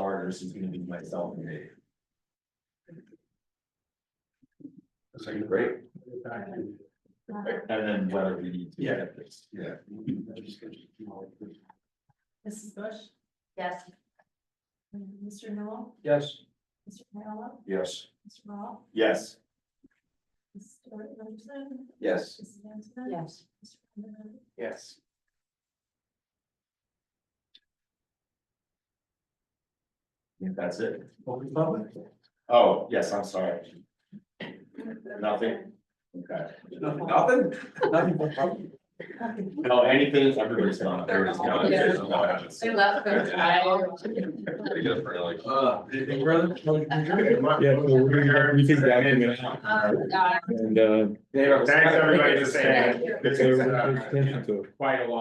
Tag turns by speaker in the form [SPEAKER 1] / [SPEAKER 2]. [SPEAKER 1] starters is gonna be myself and Dave.
[SPEAKER 2] That's like great.
[SPEAKER 3] Uh,
[SPEAKER 1] And then whether we need to.
[SPEAKER 2] Yeah.
[SPEAKER 1] Yeah.
[SPEAKER 3] Mrs. Bush,
[SPEAKER 4] Yes.
[SPEAKER 3] Mr. Noel,
[SPEAKER 2] Yes.
[SPEAKER 3] Mr. Viola,
[SPEAKER 2] Yes.
[SPEAKER 3] Mr. Ball,
[SPEAKER 1] Yes.
[SPEAKER 3] Mrs. Stewart Anderson,
[SPEAKER 2] Yes.
[SPEAKER 3] Mrs. Antoinette.
[SPEAKER 4] Yes.
[SPEAKER 3] Mr. Vanderman,
[SPEAKER 2] Yes.
[SPEAKER 1] If that's it.
[SPEAKER 2] Open public.
[SPEAKER 1] Oh, yes, I'm sorry. Nothing. Okay.
[SPEAKER 2] Nothing, nothing, nothing but public.
[SPEAKER 1] No, anything, everybody's done. Everybody's gone. There's no one else.
[SPEAKER 4] They left for a while.
[SPEAKER 1] Pretty good for like-
[SPEAKER 2] Uh, anything further?
[SPEAKER 5] Yeah, so we're gonna have everything documented
[SPEAKER 4] Um, uh,
[SPEAKER 5] and, uh.
[SPEAKER 2] Thanks,
[SPEAKER 1] everybody, for
[SPEAKER 5] so we're gonna pay attention to it.
[SPEAKER 1] Quite a long.